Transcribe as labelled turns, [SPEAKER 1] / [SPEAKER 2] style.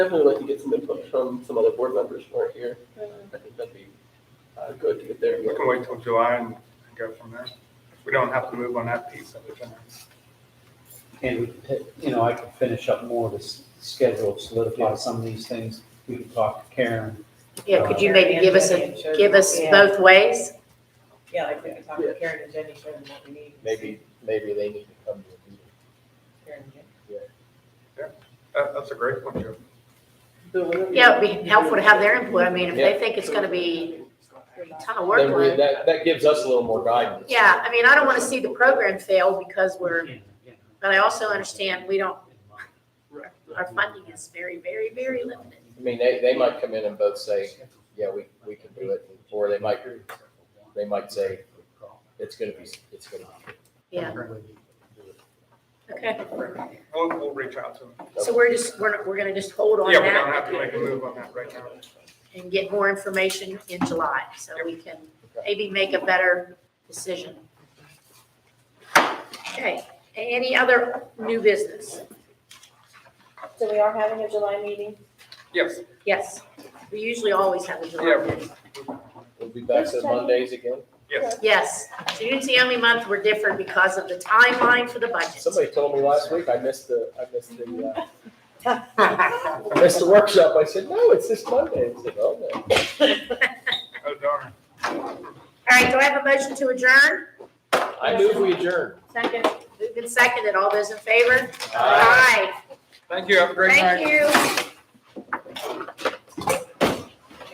[SPEAKER 1] Definitely would like to get some input from some other board members who aren't here. I think that'd be uh, good to get their.
[SPEAKER 2] We can wait till July and and go from there. We don't have to move on that piece of it. then.
[SPEAKER 3] And, you know, I could finish up more of this schedule, solidify some of these things. We can talk to Karen.
[SPEAKER 4] Yeah, could you maybe give us a, give us both ways?
[SPEAKER 5] Yeah, like we could talk to Karen and Jenny, show them what we need.
[SPEAKER 6] Maybe, maybe they need to come to a meeting.
[SPEAKER 5] Karen and Jenny.
[SPEAKER 2] That, Uh, that's a great one, Joe.
[SPEAKER 1] So whenever
[SPEAKER 4] Yeah,
[SPEAKER 1] you-
[SPEAKER 4] it'd be helpful to have their input. I mean, if they think it's gonna be a ton of
[SPEAKER 6] Then we,
[SPEAKER 4] workload.
[SPEAKER 6] that, that gives us a little more guidance.
[SPEAKER 4] Yeah, I mean, I don't want to see the program fail because we're,
[SPEAKER 3] Yeah, yeah.
[SPEAKER 4] but I also understand we don't,
[SPEAKER 1] Right.
[SPEAKER 4] our funding is very, very, very limited.
[SPEAKER 6] I mean, they, they might come in and both say, yeah, we, we can do it, or they might, they might say, it's gonna be, it's gonna be.
[SPEAKER 4] Yeah, okay.
[SPEAKER 2] We'll, we'll reach out to them.
[SPEAKER 4] So we're just, we're, we're gonna just hold on
[SPEAKER 2] Yeah, we don't have
[SPEAKER 4] that
[SPEAKER 2] to make a move on that right now.
[SPEAKER 4] and get more information in July, so we can maybe make a better decision. Okay, any other new business?
[SPEAKER 7] So we are having a July meeting.
[SPEAKER 2] Yes.
[SPEAKER 4] Yes, we usually always have a July
[SPEAKER 2] Yeah.
[SPEAKER 4] meeting.
[SPEAKER 6] We'll be back to Mondays again.
[SPEAKER 2] Yes.
[SPEAKER 4] Yes, June's the only month we're different because of the timeline for the budget.
[SPEAKER 6] Somebody told me last week, I missed the, I missed the, uh, I missed uh, the workshop. I said, no, it's this Monday. I said, oh, no.
[SPEAKER 2] Oh, darn.
[SPEAKER 4] All right, do I have a motion to adjourn?
[SPEAKER 6] I move we adjourn.
[SPEAKER 7] Second.
[SPEAKER 4] Moved and seconded, all those in favor? Aye.
[SPEAKER 6] Aye.
[SPEAKER 2] Thank you. Have a great night.
[SPEAKER 4] Thank you.